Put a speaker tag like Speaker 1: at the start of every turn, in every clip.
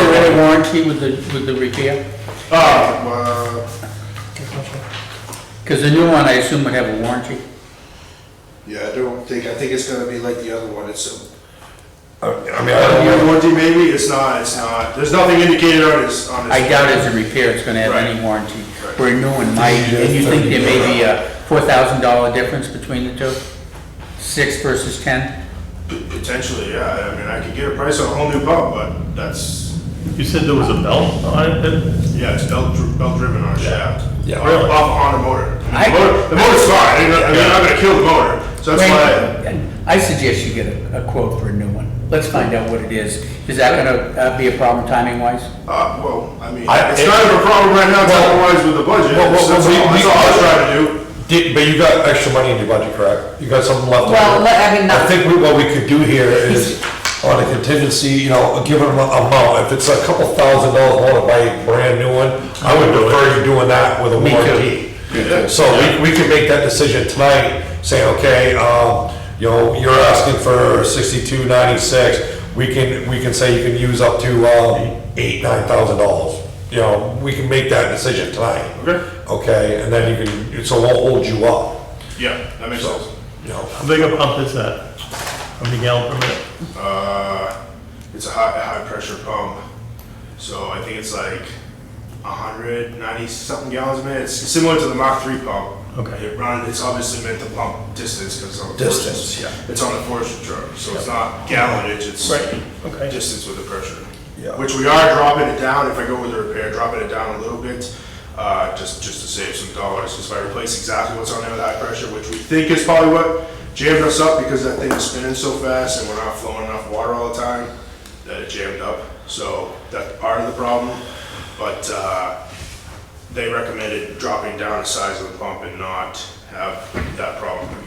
Speaker 1: a warranty with the, with the repair?
Speaker 2: Uh,
Speaker 1: Because the new one, I assume would have a warranty.
Speaker 2: yeah, I don't think, I think it's gonna be like the other one, it's
Speaker 3: I I mean,
Speaker 2: a,
Speaker 3: I don't
Speaker 2: uh,
Speaker 3: know.
Speaker 2: warranty maybe, it's not, it's not, there's nothing indicated on his, on his.
Speaker 1: I doubt as a repair, it's gonna have any
Speaker 2: Right.
Speaker 1: warranty.
Speaker 2: Right.
Speaker 1: Where a new one might, and you think there may be a four thousand dollar difference between the two? Six versus ten?
Speaker 2: Potentially, yeah, I mean, I could get a price on a whole new pump, but that's,
Speaker 4: You said there was a belt on it? that-
Speaker 2: yeah, it's belt, dri- belt driven on a shaft.
Speaker 3: Yeah.
Speaker 2: On, a- off- on a motor.
Speaker 1: I-
Speaker 2: The motor- the motor's fine, I mean, I'm not gonna kill the motor, so that's why.
Speaker 1: Wayne, I suggest you get a a quote for a new one. Let's find out what it is. Is that gonna uh, be a problem timing wise?
Speaker 2: Uh, well, I mean,
Speaker 3: I-
Speaker 2: it's kind of a problem right now, time-wise with the budget,
Speaker 3: Well, well,
Speaker 2: that's all,
Speaker 3: well, we-
Speaker 2: that's
Speaker 3: we-
Speaker 2: all I was trying to do.
Speaker 3: Did- But you got extra money in your budget, correct? You got something left over?
Speaker 5: Well, let- I mean,
Speaker 3: I
Speaker 5: not,
Speaker 3: think we- what we could do here is, on a contingency, you know, give them an amount, if it's a couple thousand dollars more to buy a brand new one, I would prefer you doing that with a
Speaker 1: Me too.
Speaker 3: warranty. So we, we can make that decision tonight, saying, okay, um, you know, you're asking for sixty-two ninety-six, we can, we can say you can use up to, um, eight, nine thousand dollars. You know, we can make that decision tonight.
Speaker 2: Okay.
Speaker 3: Okay, and then you can, so we'll hold you up,
Speaker 2: Yeah, that makes sense.
Speaker 3: you know.
Speaker 4: How big a pump is that? How many gallon per minute?
Speaker 2: Uh, it's a high, high pressure pump, so I think it's like hundred ninety something gallons a minute. It's similar to the Mach three pump.
Speaker 4: Okay.
Speaker 2: It run, it's obviously meant to pump distance because it's on a
Speaker 3: Distance,
Speaker 2: forestry-
Speaker 3: yeah.
Speaker 2: It's on a forestry truck, so it's not gallonage. It's
Speaker 4: Right, okay.
Speaker 2: distance with the pressure.
Speaker 3: Yeah.
Speaker 2: Which we are dropping it down. If I go with the repair, dropping it down a little bit. Uh, just, just to save some dollars, just by replace exactly what's on there with high pressure, which we think is probably what jammed us up because that thing is spinning so fast and we're not flowing enough water all the time that it jammed up. So that's part of the problem. But, uh, they recommended dropping down the size of the pump and not have that problem again.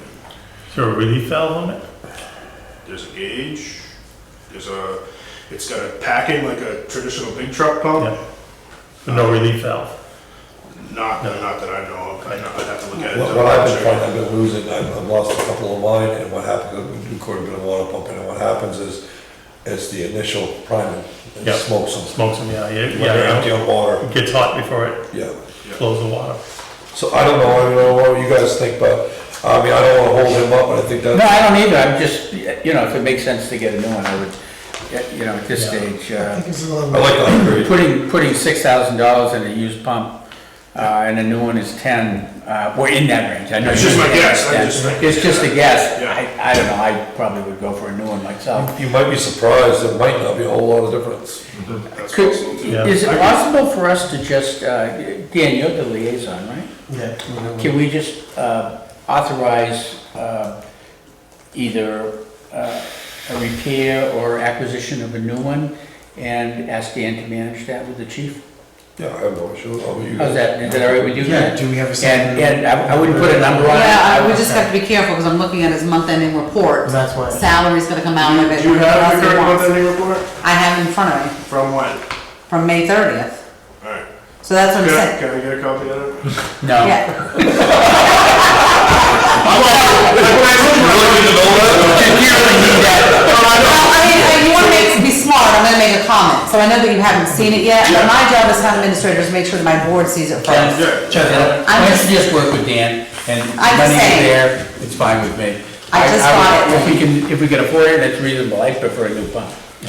Speaker 4: Is there a relief valve on it?
Speaker 2: There's a gauge. There's a. It's got a packing like a traditional big truck
Speaker 1: Oh.
Speaker 2: pump.
Speaker 4: Yeah. But no relief valve?
Speaker 2: Not, not that I know of. I know, I'd have to look at it.
Speaker 3: What what I've been finding, I've been losing, I've I've lost a couple of mine, and what happened, we do quite a bit of water pumping, and what happens is, it's the initial priming, and
Speaker 4: Yeah.
Speaker 3: smokes them,
Speaker 4: Smokes them, yeah, yeah,
Speaker 3: when they're
Speaker 4: yeah.
Speaker 3: empty on water,
Speaker 4: It gets hot before it
Speaker 3: yeah.
Speaker 4: flows the water.
Speaker 3: So I don't know, I don't know what you guys think, but, I mean, I don't wanna hold him up, but I think
Speaker 1: No,
Speaker 3: that,
Speaker 1: I don't either. I'm just, you know, if it makes sense to get a new one, I would, you know, at this stage, uh,
Speaker 3: I like to upgrade.
Speaker 1: Putting, putting six thousand dollars in a used pump, uh, and a new one is ten, uh, we're in that range, I know.
Speaker 2: It's
Speaker 1: you-
Speaker 2: just my guess. I
Speaker 1: Yeah.
Speaker 2: just think-
Speaker 1: It's just a guess,
Speaker 2: Yeah.
Speaker 1: I, I don't know, I probably would go for a new one myself.
Speaker 3: You might be surprised, there might not be a whole lot of difference.
Speaker 2: That's
Speaker 1: Could,
Speaker 2: possible, too.
Speaker 4: Yeah.
Speaker 1: is it possible for us to just, uh, Dan, you're the liaison, right?
Speaker 4: Mm-hmm.
Speaker 1: Yeah. Can we just, uh, authorize, uh, either, uh, a repair or acquisition of a new one, and ask Dan to manage that with the chief?
Speaker 3: Yeah, I have no issue, I'll be you
Speaker 1: How's
Speaker 3: guys.
Speaker 1: that, is that all right with you?
Speaker 6: Yeah, do we have a second?
Speaker 1: And, and I I wouldn't put a number on it.
Speaker 5: yeah, I- we just have to be careful, because I'm looking at his month-ending report.
Speaker 6: That's why.
Speaker 5: Salary's gonna come out of it.
Speaker 2: Do you have your
Speaker 5: Yes, he
Speaker 2: current
Speaker 5: wants.
Speaker 2: month ending report?
Speaker 5: I have it in front of me,
Speaker 2: From when?
Speaker 5: from May thirtieth,
Speaker 2: Alright.
Speaker 5: so that's what I'm
Speaker 2: Can I,
Speaker 5: saying.
Speaker 2: can I get a copy of it?
Speaker 1: No.
Speaker 5: Yeah, well, I mean, I- you wanna make, be smart, I'm gonna make a comment, so I know that you haven't seen it yet, but my job as town administrator is to make sure that my board sees it first.
Speaker 2: Yeah.
Speaker 1: Check it out.
Speaker 5: I'm
Speaker 1: Why don't
Speaker 5: just-
Speaker 1: you just work with Dan, and
Speaker 5: I'm
Speaker 1: money is
Speaker 5: saying-
Speaker 1: there, it's fine with me.
Speaker 5: I just
Speaker 1: would-
Speaker 5: want it.
Speaker 1: If we can, if we can afford it, that's reasonable, I prefer a new pump.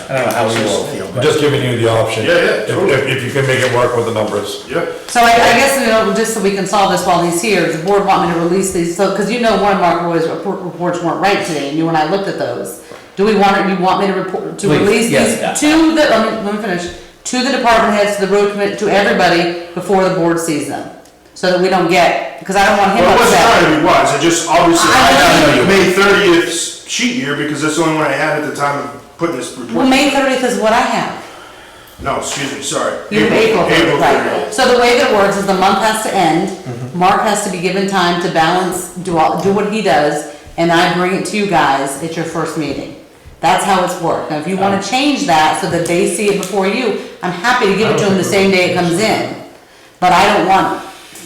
Speaker 1: I don't know how we all feel,
Speaker 3: I'm
Speaker 1: but.
Speaker 3: just giving you the option.
Speaker 2: Yeah, yeah,
Speaker 3: If-
Speaker 2: totally.
Speaker 3: If, if you can make it work with the numbers.
Speaker 2: Yeah.
Speaker 5: So I, I guess, you know, just so we can solve this while he's here, the board want me to release these, so, because you know Warren Mark Roy's report- reports weren't right today, and you and I looked at those. Do we want, you want me to report, to
Speaker 1: Please,
Speaker 5: release these
Speaker 1: yes.
Speaker 5: to the, let me, let me finish, to the department heads, to the road commit, to everybody before the board sees them? So that we don't get, because I don't want him
Speaker 2: Well, I wasn't
Speaker 5: upset.
Speaker 2: trying to be wise. I just obviously,
Speaker 5: I-
Speaker 2: I got May thirtieth sheet here because that's the only one I had at the time of putting this
Speaker 5: Well,
Speaker 2: report.
Speaker 5: May thirtieth is what I have,
Speaker 2: No, excuse me, sorry.
Speaker 5: you have April,
Speaker 2: April
Speaker 5: right,
Speaker 2: thirtieth.
Speaker 5: so the way that it works is the month has to end, Mark has to be given time to balance, do all, do what he does, and I bring it to you guys at your first meeting. That's how it's worked, now if you wanna change that so that they see it before you, I'm happy to give it to them the same day it comes in, but I don't want,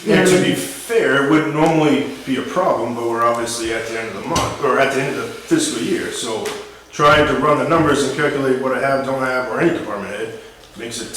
Speaker 5: you know
Speaker 2: And
Speaker 5: what I
Speaker 2: to be
Speaker 5: mean?
Speaker 2: fair, it wouldn't normally be a problem, but we're obviously at the end of the month, or at the end of the fiscal year, so trying to run the numbers and calculate what I have, don't have, or any department head, makes it